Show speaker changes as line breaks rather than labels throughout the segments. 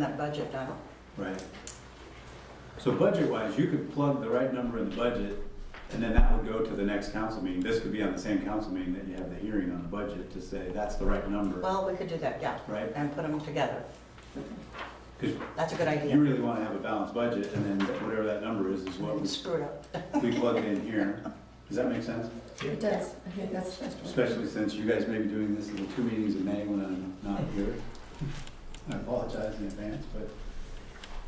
that budget done.
Right. So budget-wise, you could plug the right number in the budget, and then that would go to the next council meeting. This could be on the same council meeting that you have the hearing on the budget to say, that's the right number,
Well, we could do that, yeah,
right?
and put them together.
Because
That's a good
you
idea.
really want to have a balanced budget, and then whatever that number is, is what we-
Screw it up.
we plug in here. Does that make sense?
It does, I think that's,
Especially since you guys may be doing this in the two meetings in May when I'm not here. I apologize in advance, but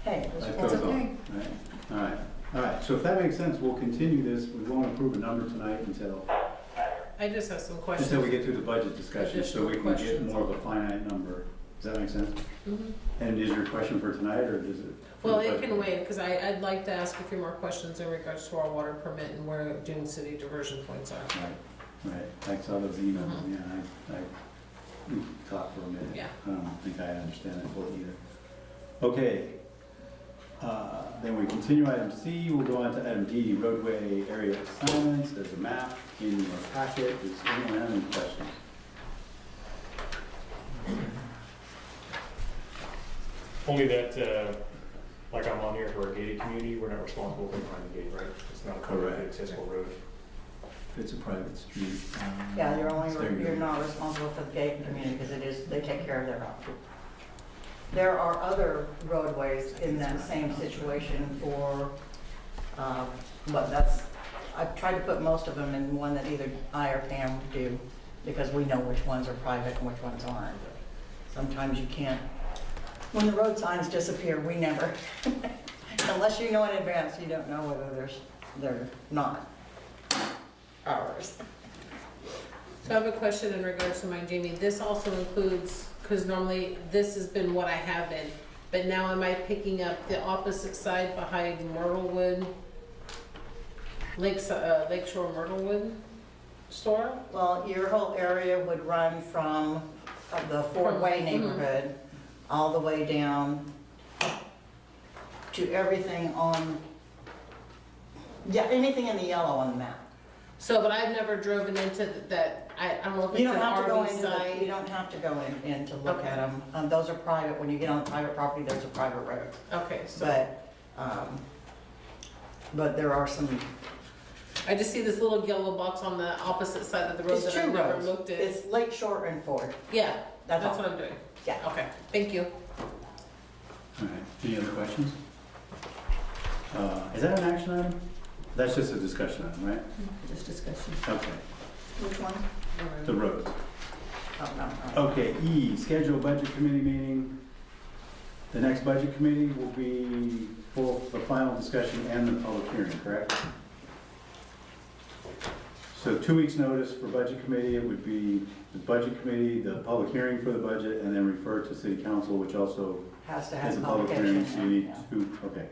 Hey, it was-
Life
That's
goes
okay.
on, right? All right, all right, so if that makes sense, we'll continue this, we won't approve a number tonight until,
I just have some questions.
until we get through the budget discussion, so we can get
Additional questions.
more of a finite number. Does that make sense?
Mhm.
And is your question for tonight, or does it? for
Well,
the
it
budget?
can wait, because I, I'd like to ask a few more questions in regards to our water permit and where Dune City diversion points are.
Right, right, I saw those emails, yeah, I, I thought for a minute.
Uh-huh. Yeah.
I don't think I understand that fully either. Okay. Uh, Then we continue item C, we'll go on to item D, roadway area assignments, there's a map in your packet, does anyone have any questions?
Only that, uh, like I'm on here for a gated community, we're not responsible for behind the gate, right? It's not a
Correct.
publicly accessible road.
It's a private street. um,
Yeah, you're only,
there you
you're
go.
not responsible for the gated community because it is, they take care of their own. There are other roadways in that same situation for, um, but that's, I've tried to put most of them in one that either I or Pam do because we know which ones are private and which ones aren't. Sometimes you can't, when the road signs disappear, we never, unless you know in advance, you don't know whether there's, they're not ours.
So I have a question in regards to mine, Jamie. This also includes, because normally this has been what I have been, but now am I picking up the opposite side behind Myrtlewood? Lakes, uh, Lakeshore Myrtlewood store?
Well, your whole area would run from uh, the Fort Way
From- mhm.
neighborhood all the way down to everything on, yeah, anything in the yellow on the map.
So, but I've never driven into th- that, I, I don't know if
You
it's an
don't have to go
RV
into, the- you
site.
don't have to go in, in to look
Okay.
at them. Um, those are private, when you get on private property, there's a private road.
Okay, so.
But, um, but there are some,
I just see this little yellow box on the opposite side of the road
it's
that
two
I've never
roads.
looked at.
It's Lake Shore and Ford,
Yeah,
that's
that's
all.
what I'm doing.
Yeah.
Okay, thank you.
All right, any other questions? Uh, Is that an action item? That's just a discussion item, right?
just discussion.
Okay,
Which one?
the roads.
Oh, no, no.
Okay, E, schedule budget committee meeting. The next budget committee will be for the final discussion and the public hearing, correct? So two weeks' notice for budget committee, it would be the budget committee, the public hearing for the budget, and then refer to city council, which also
Has to
is
have
a
a
public hearing,
publication.
so you need
yeah.
to, okay.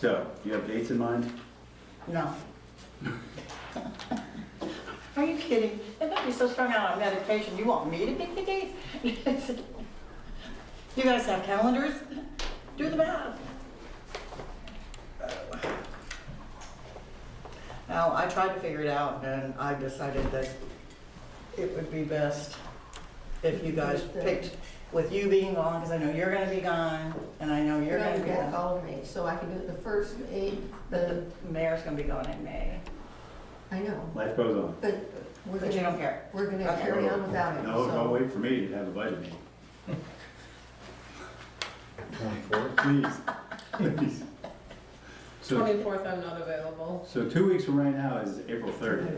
So, do you have dates in mind?
No. Are you kidding? They might be so strung out on medication, you want me to pick the dates? You guys have calendars? Do the math. Now, I tried to figure it out and I decided that it would be best if you guys picked, with you being gone, because I know you're gonna be gone, and I know you're
You're
gonna
gonna
be
get
gone.
all of me, so I can do it the first eight,
The
the,
mayor's gonna be gone in May,
I know,
Life goes on.
but we're
but you don't
gonna,
care.
we're gonna carry on without it,
No, don't
so.
wait for me to have a budget meeting. Twenty-four? Please, please. So,
Twenty-fourth, I'm not available.
so two weeks from right now is April thirtieth.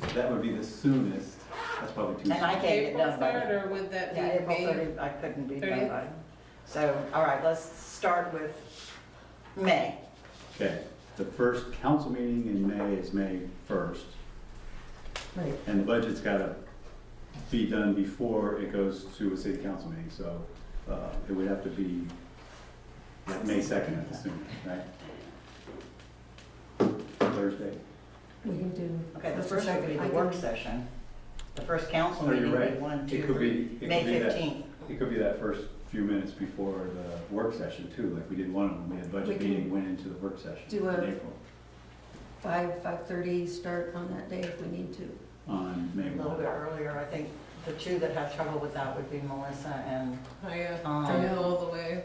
So,
That would be the soonest. That's probably too
And I
soon.
can't get
April
done by.
third, or would that be
Yeah, April
May?
30, I couldn't be done
30th?
by. So, all right, let's start with May.
Okay, the first council meeting in May is May first,
Right,
and the budget's gotta be done before it goes to a city council meeting, so, uh, it would have to be like May second at the soonest, right? Thursday.
we can do.
Okay, the
Mr.
first would be
Secretary, I
the
can-
work session. The first council
Oh, you're
meeting would be
right.
one, two,
It could
three.
be, it could be
May
that-
15th.
It could be that first few minutes before the work session too, like we did one of them, we had
We
budget
can
meeting, went into the work session
do a-
in April
Five, five-thirty, start on that day if we need to.
on May
A little bit
one.
earlier, I think the two that have trouble with that would be Melissa and
I, uh,
Tom. Oh,
don't know all the way.